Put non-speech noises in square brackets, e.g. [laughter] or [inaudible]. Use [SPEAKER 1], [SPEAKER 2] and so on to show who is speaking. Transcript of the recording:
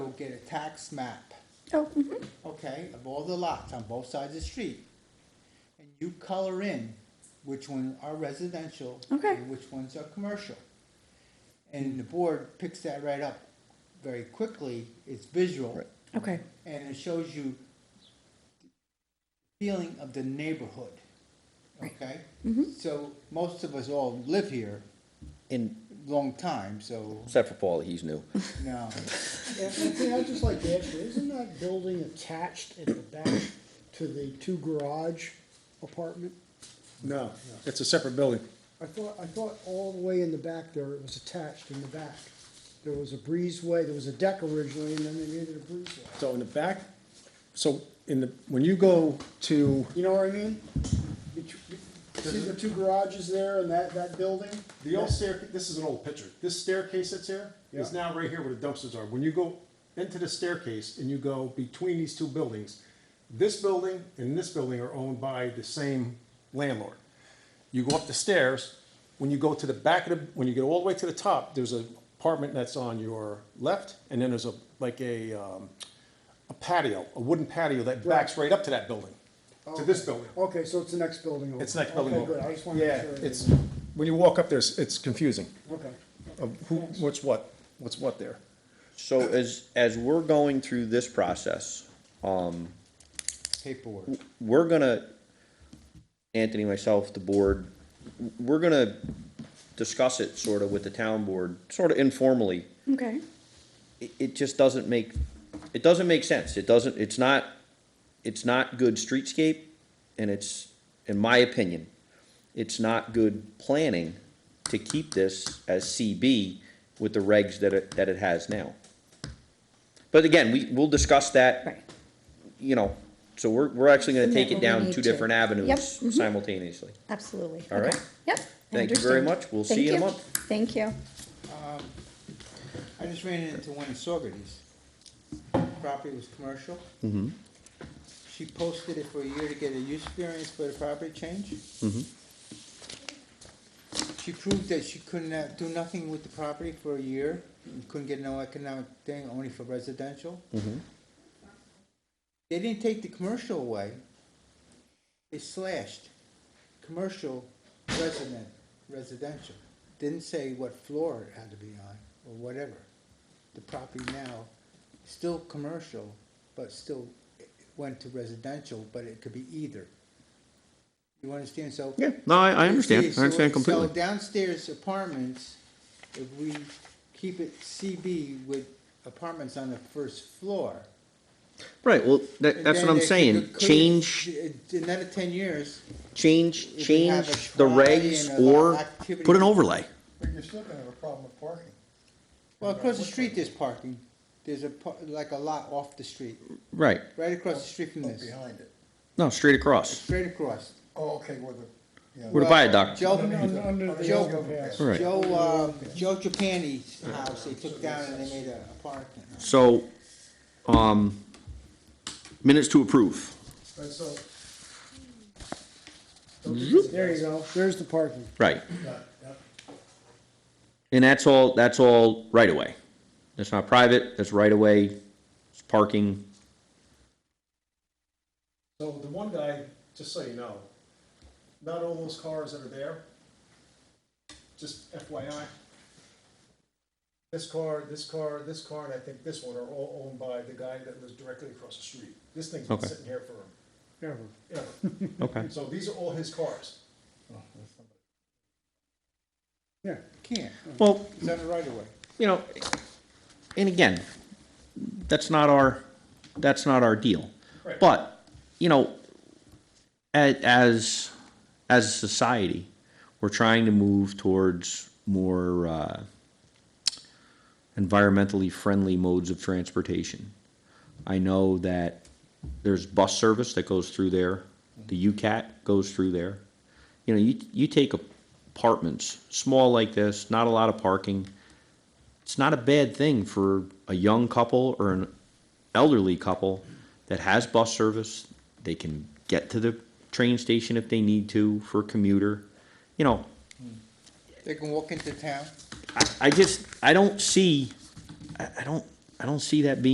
[SPEAKER 1] would get a tax map,
[SPEAKER 2] Oh, mhm.
[SPEAKER 1] okay, of all the lots on both sides of the street. And you color in which ones are residential.
[SPEAKER 2] Okay.
[SPEAKER 1] And which ones are commercial. And the board picks that right up very quickly, it's visual.
[SPEAKER 2] okay,
[SPEAKER 1] and it shows you feeling of the neighborhood, okay? So most of us all live here
[SPEAKER 3] In,
[SPEAKER 1] long time, so,
[SPEAKER 3] except for Paul, he's new.
[SPEAKER 1] no,
[SPEAKER 4] Anthony, I'd just like to ask you, isn't that building attached at the back to the two garage apartment?
[SPEAKER 5] No, it's a separate building.
[SPEAKER 4] I thought, I thought all the way in the back there, it was attached in the back. There was a breezeway, there was a deck originally, and then they made it a breezeway.
[SPEAKER 5] So in the back, so in the, when you go to,
[SPEAKER 4] You know what I mean? Bet- bet- See the two garages there and that, that building?
[SPEAKER 6] The old staircase, this is an old picture. This staircase that's here is
[SPEAKER 4] Yeah.
[SPEAKER 6] now right here where the dumpsters are. When you go into the staircase and you go between these two buildings, this building and this building are owned by the same landlord. You go up the stairs, when you go to the back of the, when you go all the way to the top, there's an apartment that's on your left, and then there's a, like a, um, a patio, a wooden patio that backs right up to that building, to this building.
[SPEAKER 4] Oh, Okay, so it's the next building over.
[SPEAKER 6] It's next building
[SPEAKER 4] Okay,
[SPEAKER 6] over.
[SPEAKER 4] good. I just wanted to
[SPEAKER 5] yeah,
[SPEAKER 4] make sure.
[SPEAKER 5] it's, when you walk up there, it's- it's confusing
[SPEAKER 4] Okay.
[SPEAKER 5] of who, what's what, what's what there.
[SPEAKER 3] So as, as we're going through this process,
[SPEAKER 1] paperwork.
[SPEAKER 3] we're gonna, Anthony, myself, the board, we're gonna discuss it sort of with the town board, sort of informally.
[SPEAKER 2] okay,
[SPEAKER 3] It, it just doesn't make, it doesn't make sense. It doesn't, it's not, it's not good streetscape and it's, in my opinion, it's not good planning to keep this as CB with the regs that it, that it has now. But again, we, we'll discuss that
[SPEAKER 2] right.
[SPEAKER 3] you know, so we're, we're actually gonna
[SPEAKER 2] Something
[SPEAKER 3] take
[SPEAKER 2] that
[SPEAKER 3] it
[SPEAKER 2] we
[SPEAKER 3] down
[SPEAKER 2] need
[SPEAKER 3] two
[SPEAKER 2] to-
[SPEAKER 3] different
[SPEAKER 2] Yep,
[SPEAKER 3] avenues
[SPEAKER 2] mhm.
[SPEAKER 3] simultaneously.
[SPEAKER 2] Absolutely.
[SPEAKER 3] All right.
[SPEAKER 2] Okay. Yep. I
[SPEAKER 3] Thank you very
[SPEAKER 2] understand.
[SPEAKER 3] much. We'll see
[SPEAKER 2] Thank
[SPEAKER 3] you in a month.
[SPEAKER 2] Thank you.
[SPEAKER 1] I just ran into one in Saugerties. Property was commercial. Mm-hmm. She posted it for a year to get a use variance for the property change. Mm-hmm. She proved that she couldn't uh, do nothing with the property for a year, couldn't get no economic thing, only for residential. They didn't take the commercial away. They slashed commercial, resident, residential. Didn't say what floor it had to be on or whatever. The property now, still commercial, but still it went to residential, but it could be either. You understand? So.
[SPEAKER 3] no, I, I
[SPEAKER 1] Okay, so- So downstairs apartments, if we keep it CB with apartments on the first floor.
[SPEAKER 3] Right, well, that,
[SPEAKER 1] and then they could clear- In another ten years,
[SPEAKER 3] change,
[SPEAKER 1] If we have a shrine and a lot of activity-
[SPEAKER 3] overlay.
[SPEAKER 7] But you're still gonna have a problem with parking.
[SPEAKER 1] Well, across the street, there's parking. There's a, par- like a lot off the street,
[SPEAKER 3] Right,
[SPEAKER 1] right across the street from
[SPEAKER 7] Up
[SPEAKER 1] this,
[SPEAKER 7] Behind it.
[SPEAKER 3] no, straight across.
[SPEAKER 1] straight across.
[SPEAKER 7] Oh, okay, where the, yeah.
[SPEAKER 3] Where the viaduct.
[SPEAKER 1] Joe,
[SPEAKER 4] Under the
[SPEAKER 1] Joe-
[SPEAKER 4] overpass.
[SPEAKER 3] All right.
[SPEAKER 1] Joe, um, Joe Japani's house, they took down and they made a a parking.
[SPEAKER 3] So, um, minutes to approve.
[SPEAKER 7] But so,
[SPEAKER 4] There you go. There's the parking.
[SPEAKER 3] Right,
[SPEAKER 7] yeah, yeah.
[SPEAKER 3] and that's all, that's all right away. That's not private, that's right away, it's parking.
[SPEAKER 6] So the one guy, just so you know, not all those cars that are there, just FYI, this car, this car, this car, and I think this one are all owned by the guy that lives directly across the street. This thing's been
[SPEAKER 3] Okay.
[SPEAKER 6] sitting here for
[SPEAKER 4] Ever.
[SPEAKER 3] [laughs]
[SPEAKER 6] ever.
[SPEAKER 3] Okay.
[SPEAKER 6] So these are all his cars.
[SPEAKER 4] Yeah.
[SPEAKER 1] Can't,
[SPEAKER 3] Well,
[SPEAKER 1] it's on the right of way.
[SPEAKER 3] you know, and again, that's not our, that's not our deal.
[SPEAKER 6] Right.
[SPEAKER 3] But, you know, a- as, as a society, we're trying to move towards more, uh, environmentally friendly modes of transportation. I know that there's bus service that goes through there, the UCAT goes through there. You know, you, you take apartments, small like this, not a lot of parking it's not a bad thing for a young couple or an elderly couple that has bus service. They can get to the train station if they need to for a commuter. You know,
[SPEAKER 1] They can walk into town.
[SPEAKER 3] I, I just I don't see I, I don't I don't see that being